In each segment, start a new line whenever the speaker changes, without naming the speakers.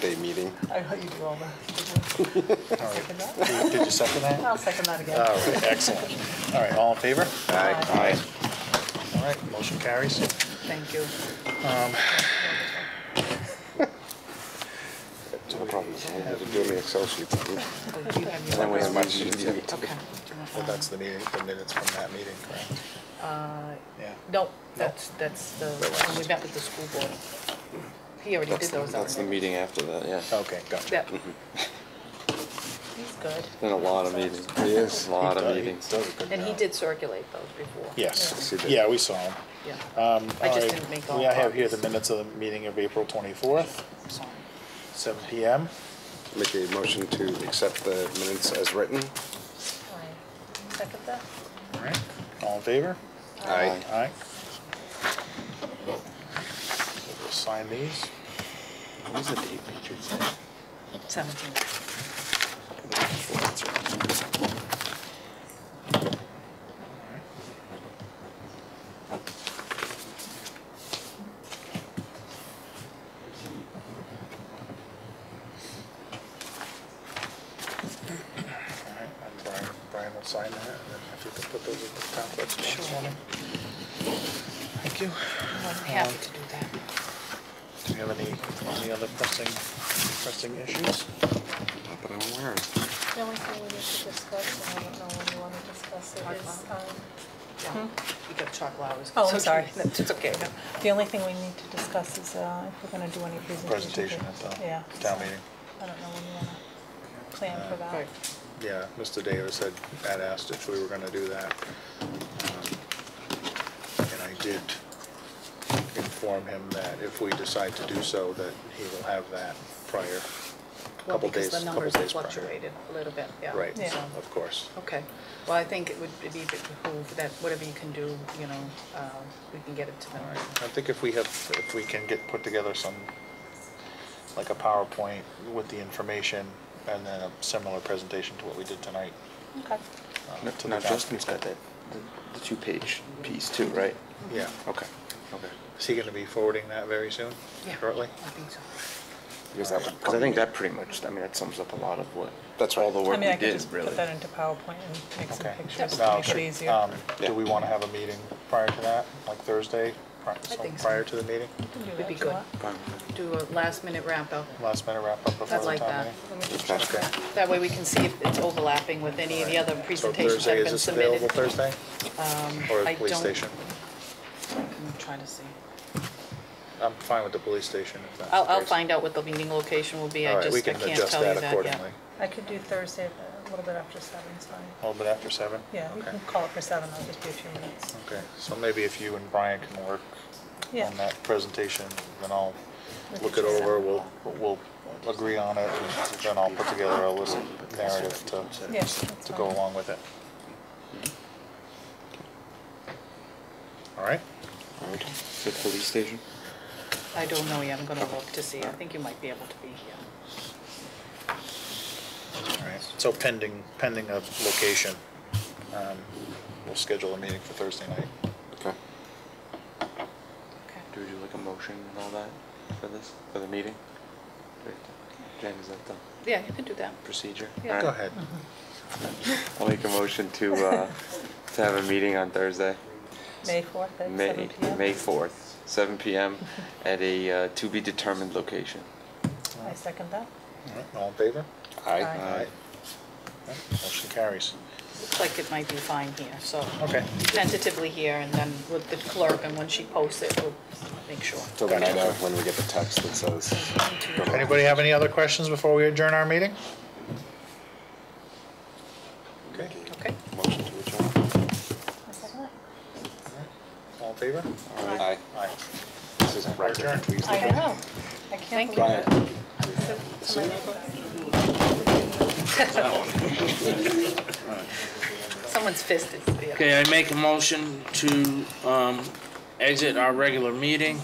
Day meeting.
I hope you do all that. Second that?
Did did you second that?
I'll second that again.
All right, excellent. All right, all in favor?
Aye.
All right, motion carries.
Thank you.
No problem. We'll do it in the Excel sheet. And
Oh, do you have your-
then we have much to do.
Okay.
Well, that's the meeting, the minutes from that meeting, correct?
Uh,
Yeah.
No, that's, that's the, when we met with the school board. He already
That's
did
the-
those
That's the
already.
meeting after that, yeah.
Okay, gotcha.
Yep. He's good.
Been a lot of meetings. Yes. A lot of meetings.
Does a good
And he
job.
did circulate those before.
Yes,
Yes, he did.
yeah, Um, we saw him.
Yeah.
All
I just
right,
didn't make all
We have here the
copies.
minutes of the meeting of April 24th,
Sorry.
seven PM.
Make a motion to accept the minutes as written.
Sorry. Second that?
All right, all in favor?
Aye.
All right. We'll Sign these.
What was the date, Richard? said?
Seventeen.
All right, and Brian, Brian will sign that, and then if you could put those at the top, that's
Sure.
Thank you.
I'm happy to do that.
Do you have any, any other pressing, pressing issues?
Not that I'm aware of.
The only thing we need to discuss, and I don't know when you want to discuss it, is,
Pipeline.
um,
Yeah. You got chocolate hours.
Hmm? Oh, I'm sorry.
No, It's okay. No.
the only thing we need to discuss is uh, if we're going to do any
Presentation
presentation.
at
Yeah.
the town meeting.
I don't know when you want to plan for that.
Right.
Yeah, Mr. Davis had, had asked if we were gonna do that. Um, And I did inform him that if we decide to do so, that he will have that prior,
Well,
couple
because
days,
the
couple
numbers have
days prior.
fluctuated a little bit, yeah. Oh.
Right,
Yeah.
So,
of course.
Okay, well, I think it would be behoove that whatever you can do, you know, uh, we can get it to them.
All right, I think if we have, if we can get, put together some, like a PowerPoint with the information and then a similar presentation to what we did tonight.
Okay.
uh,
No,
to the
Now
council.
Justin's got that, the- the two-page piece too, right?
Yeah.
Okay, okay.
Is he gonna be forwarding that very soon?
Yeah. Uh,
Shortly?
I think so.
Because that, because I think that pretty much, I mean, that sums up a lot of what,
That's
all
right.
the
I
work we
mean, I could
did,
just put
really.
that into PowerPoint and make some
Okay.
pictures
Now,
to make it easier.
um,
Yeah.
Do we wanna have a meeting prior to that, like Thursday? pri- some-
think so.
Prior to the meeting?
You can do
Would
that
be
if you
good.
want.
Fine with that.
Do a last minute wrap up.
Last minute wrap up before
I'd
the
like
town
that.
meeting?
Let me just
Okay.
check that. That way we can see if it's overlapping with any of the other
So
presentations that have
Thursday, is
been
this
submitted. Um,
available Thursday? Or
I
the police
don't-
station?
I'm trying to see.
I'm fine with the police station if that's the
I'll, I'll
case.
find out what the meeting location will be,
All
I
right, we
just, I
can
can't
adjust
tell you
that
that
accordingly.
yet.
I could do Thursday, but a little bit after seven, is fine.
A little bit after seven?
Yeah, we
Okay.
can call it for seven, that'll just be a few minutes.
Okay, so maybe if you and Brian can work
Yeah.
on that presentation, then I'll
We could
look it
do seven
over, we'll,
o'clock.
we'll agree on it, and then I'll put together a list of narrative to,
Yeah, that's
to go
fine.
along with it. All right?
The police station?
I don't know yet, I'm gonna look to see, I think you might be able to be here.
All right, so pending, pending a location, um, we'll schedule a meeting for Thursday night.
Okay.
Okay.
Do we do like a motion and all that for this, for the meeting? Do we have to- Jen, is that the
Yeah, you can do that.
procedure?
Yeah.
All
Go
right.
ahead.
Mm-hmm.
I'll make a motion to, uh, to have a meeting on Thursday,
May 4th at
May,
7 PM.
May 4th, 7 PM, at a uh, to-be-determined location.
I second that.
All right, All in favor?
Aye.
Aye.
All right. Motion carries.
Looks like it might be fine here, so.
Okay.
Tentatively here, and then with the clerk, and when she posts it, we'll make sure.
Till the night of when we get the text that says. go to-
Anybody have any other questions before we adjourn our meeting? Okay,
Okay?
Motion to adjourn.
I second that.
all in favor?
Aye.
Aye.
This is record. Please leave
I
it.
know. I
Thank you.
can't believe it.
Brian.
Someone's fist is the other.
Okay, I make a motion to um, exit our regular meeting,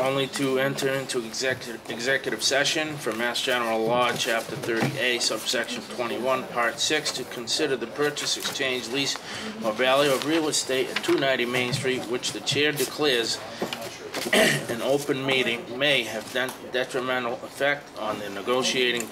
only to enter into executive, executive session for Mass General Law, Chapter 30A, subsection 21, Part 6, to consider the purchase, exchange, lease, or value of real estate at 290 Main Street, which the chair declares an open meeting may have den- detrimental effect on the negotiating